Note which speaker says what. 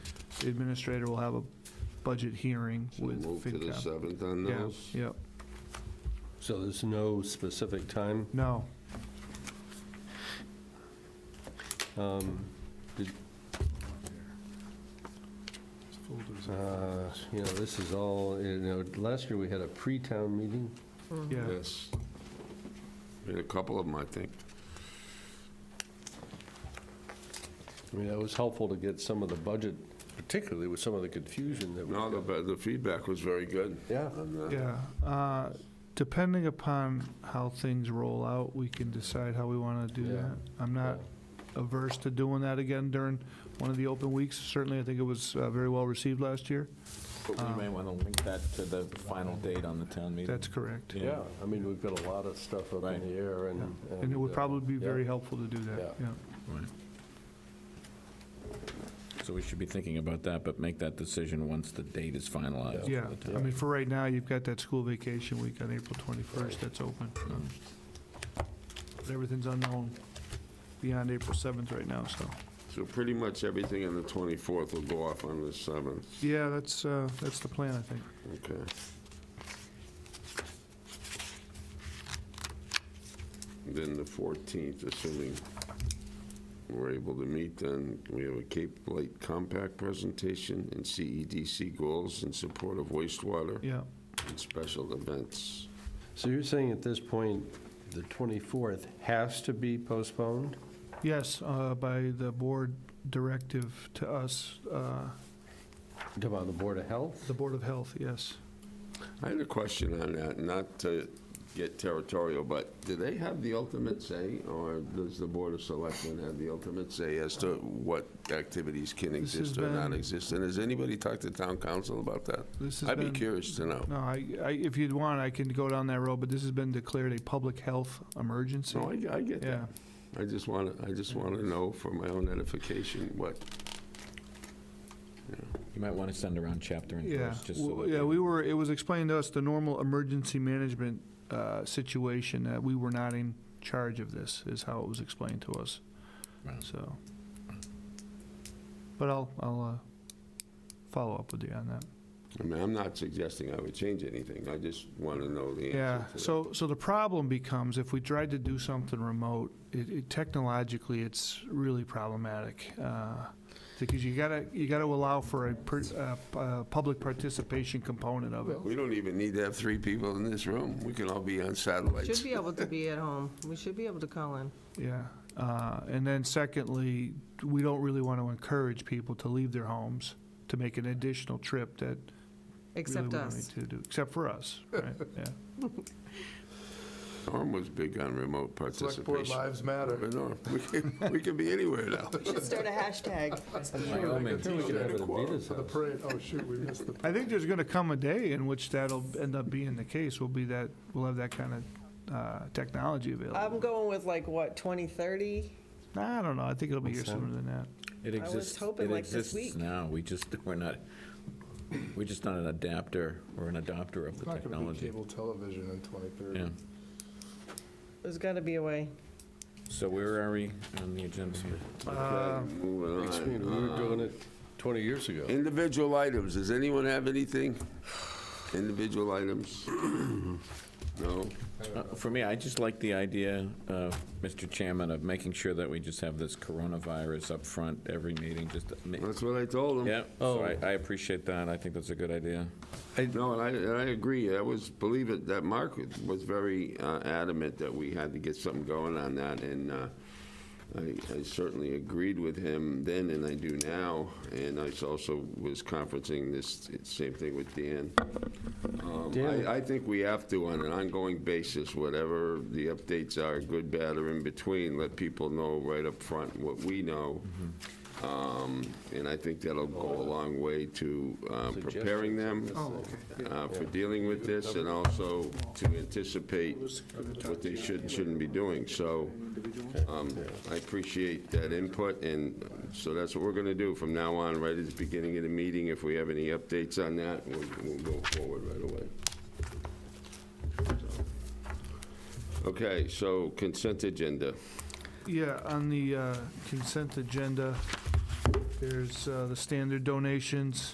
Speaker 1: administrator will have a budget hearing
Speaker 2: So
Speaker 1: with
Speaker 2: move to the
Speaker 1: FinCom.
Speaker 2: 7th on
Speaker 1: Yeah,
Speaker 2: those?
Speaker 1: yep.
Speaker 3: So there's no specific time?
Speaker 1: No,
Speaker 3: Um, did- uh, You know, this is all, you know, last year we had a pre-town meeting.
Speaker 1: yeah.
Speaker 2: Yes. We had a couple of them, I think.
Speaker 3: I mean, it was helpful to get some of the budget, particularly with some of the confusion that we
Speaker 2: No,
Speaker 3: got.
Speaker 2: the, the feedback was very good.
Speaker 3: Yeah.
Speaker 2: on that.
Speaker 1: Yeah, uh, depending upon how things roll out, we can decide how we want to do
Speaker 3: Yeah.
Speaker 1: that. I'm not averse to doing that again during one of the open weeks. Certainly, I think it was uh, very well received last year.
Speaker 4: But we may want to link that to the final date on the town meeting.
Speaker 1: Um, That's correct.
Speaker 3: Yeah, I mean, we've got a lot of stuff up
Speaker 4: Right.
Speaker 3: in the air
Speaker 1: Yeah.
Speaker 3: and.
Speaker 1: And it would
Speaker 3: uh,
Speaker 1: probably be
Speaker 3: yeah.
Speaker 1: very helpful to do that, yeah.
Speaker 4: So we should be thinking about that, but make that decision once the date is finalized.
Speaker 1: Yeah,
Speaker 4: for the
Speaker 1: I
Speaker 4: town.
Speaker 1: mean, for right now, you've got that school vacation week on April 21st that's open. um, but Everything's unknown beyond April 7th right now, so.
Speaker 2: So pretty much everything on the 24th will go off on the 7th.
Speaker 1: Yeah, that's, uh, that's the plan, I think.
Speaker 2: Okay. Then the 14th, assuming we're able to meet, then we have a Cape Light Compact presentation and CEDC goals in support of wastewater
Speaker 1: Yeah,
Speaker 2: and special events.
Speaker 3: So you're saying at this point, the 24th has to be postponed?
Speaker 1: yes, uh, by the board directive to us, uh,
Speaker 3: Talking about the Board of Health?
Speaker 1: the Board of Health, yes.
Speaker 2: I had a question on that, not to get territorial, but do they have the ultimate say, or does the Board of Selectmen have the ultimate say as to what activities can
Speaker 1: This has
Speaker 2: exist or not
Speaker 1: been-
Speaker 2: exist? And has anybody talked to town council about that?
Speaker 1: This has
Speaker 2: I'd be
Speaker 1: been-
Speaker 2: curious to know.
Speaker 1: No, I, I, if you'd want, I can go down that road, but this has been declared a public health emergency.
Speaker 2: No, Oh, I, I get
Speaker 1: Yeah,
Speaker 2: that. I just want to, I just want to know for my own edification what,
Speaker 4: You might want to send around chapter and
Speaker 1: yeah.
Speaker 4: verse, just so.
Speaker 1: Well,
Speaker 4: that
Speaker 1: Yeah,
Speaker 4: they-
Speaker 1: we were, it was explained to us, the normal emergency management uh, situation, that we were not in charge of this, is how it was explained to us,
Speaker 4: Right.
Speaker 1: so. But I'll, I'll uh, follow up with you on that.
Speaker 2: I mean, I'm not suggesting I would change anything. I just want to know the answer.
Speaker 1: Yeah,
Speaker 2: to that.
Speaker 1: so, so the problem becomes if we tried to do something remote, it, it technologically, it's really problematic. uh, Because you gotta, you gotta allow for a, per- uh, p- uh, public participation component of it.
Speaker 2: We don't even need to have three people in this room. We can all be on satellites.
Speaker 5: Should be able to be at home. We should be able to call in.
Speaker 1: Yeah, uh, and then secondly, we don't really want to encourage people to leave their homes to make an additional trip that really we
Speaker 5: Except
Speaker 1: don't
Speaker 5: us.
Speaker 1: need to do, except for us, right, yeah.
Speaker 2: Norm was big on remote
Speaker 6: Select
Speaker 2: participation.
Speaker 6: board lives matter.
Speaker 2: But Norm, we can, we can be anywhere now.
Speaker 5: Should start a hashtag.
Speaker 3: Wyoming.
Speaker 6: Sure, we could do it For the
Speaker 3: Well,
Speaker 6: parade, oh shoot, we missed the,
Speaker 1: I think there's going to come a day in which that'll end up being the case, will be that, we'll have that kind of uh, technology available.
Speaker 5: I'm going with like, what, 2030?
Speaker 1: Nah, I don't know, I think it'll be here
Speaker 3: What's that?
Speaker 1: sooner than that.
Speaker 4: It
Speaker 5: was
Speaker 4: exists,
Speaker 5: hoping
Speaker 4: it
Speaker 5: like this
Speaker 4: exists
Speaker 5: week.
Speaker 4: now, we just, we're not, we're just not an adapter or an adopter of
Speaker 6: it's
Speaker 4: the
Speaker 6: not going to be
Speaker 4: technology.
Speaker 6: cable television in
Speaker 4: Yeah,
Speaker 6: 2030.
Speaker 5: There's got to be a way.
Speaker 4: so where are we on the agenda?
Speaker 2: Okay, moving
Speaker 3: Next
Speaker 2: on.
Speaker 3: meeting, we were doing it 20 years ago.
Speaker 2: Individual items, does anyone have anything? Individual items? No?
Speaker 4: Uh, For me, I just like the idea, uh, Mr. Chairman, of making sure that we just have this coronavirus up front every meeting, just, to ma-
Speaker 2: That's what I told them.
Speaker 4: yeah, so I I appreciate that, I think that's a good idea.
Speaker 2: No, and I, and I agree, I was, believe it, that Mark was very uh, adamant that we had to get something going on that, and uh, I I certainly agreed with him then, and I do now, and I also was conferencing this, same thing with Dan. Um,
Speaker 3: Dan-
Speaker 2: I, I think we have to, on an ongoing basis, whatever the updates are, good, bad, or in between, let people know right up front what we know. Um, And I think that'll go a long way to um, preparing them uh, for dealing with this and also to anticipate what they should, and shouldn't be doing. So um, I appreciate that input, and so that's what we're going to do from now on, right at the beginning of the meeting. If we have any updates on that, we'll we'll go forward right away. So. Okay, so consent agenda.
Speaker 1: Yeah, on the uh, consent agenda, There's uh, the standard donations.